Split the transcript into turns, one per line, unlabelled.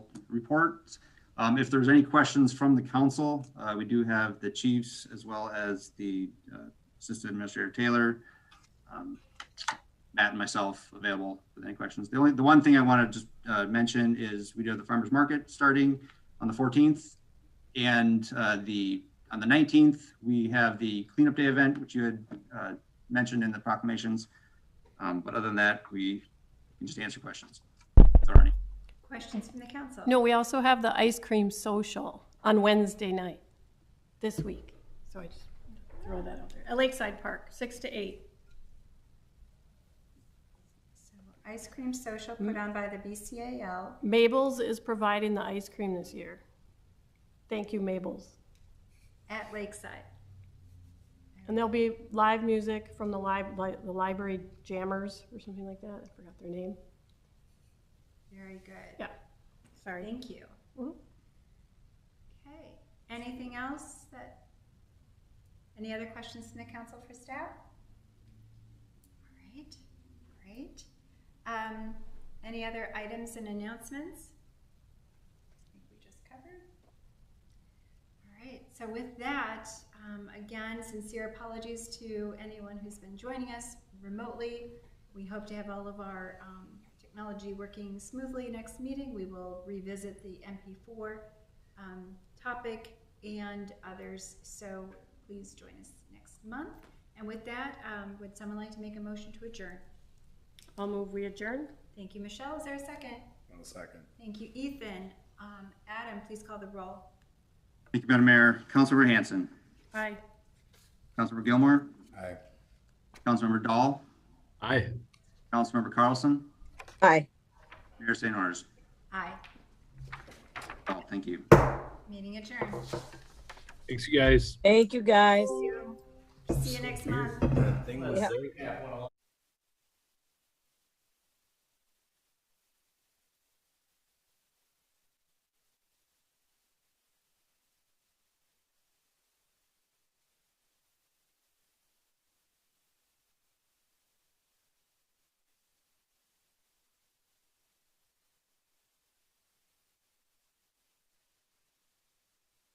reports. Um, if there's any questions from the council, uh, we do have the chiefs as well as the uh, Assistant Administrator Taylor, um, Matt and myself available with any questions. The only, the one thing I want to just uh, mention is we do have the farmer's market starting on the 14th. And uh, the, on the 19th, we have the cleanup day event, which you had uh, mentioned in the proclamations. Um, But other than that, we can just answer questions. If there are any.
Questions from the council?
No, we also have the ice cream social on Wednesday night this week. So I just throw that out there. At Lakeside Park, six to eight.
So, Ice cream social put on by the BCAL.
Mabel's is providing the ice cream this year. Thank you, Mabel's.
at Lakeside.
And there'll be live music from the lib- li- the library jammers or something like that. I forgot their name.
Very good. Mm-hmm.
Yeah, sorry.
Thank you.
Mhm.
Okay, anything else that, any other questions from the council for staff? All right, great. Um, any other items and announcements? I think we just covered. All right, so with that, um, again, sincere apologies to anyone who's been joining us remotely. We hope to have all of our um, technology working smoothly next meeting. We will revisit the MP4 um, topic and others, so please join us next month. And with that, um, would someone like to make a motion to adjourn?
I'll move, we adjourn.
Thank you, Michelle. Is there a second?
One second.
Thank you, Ethan. Um, Adam, please call the roll.
Thank you, Madam Mayor. Councilmember Hanson,
Aye.
Councilmember Gilmore,
Aye.
Councilmember Dahl,
Aye.
Councilmember Carlson,
Aye.
Mayor St. Orders.
Aye.
Oh, thank you.
Meeting adjourned.
Thanks, you guys.
Thank you, guys.
See you next month.
Yeah.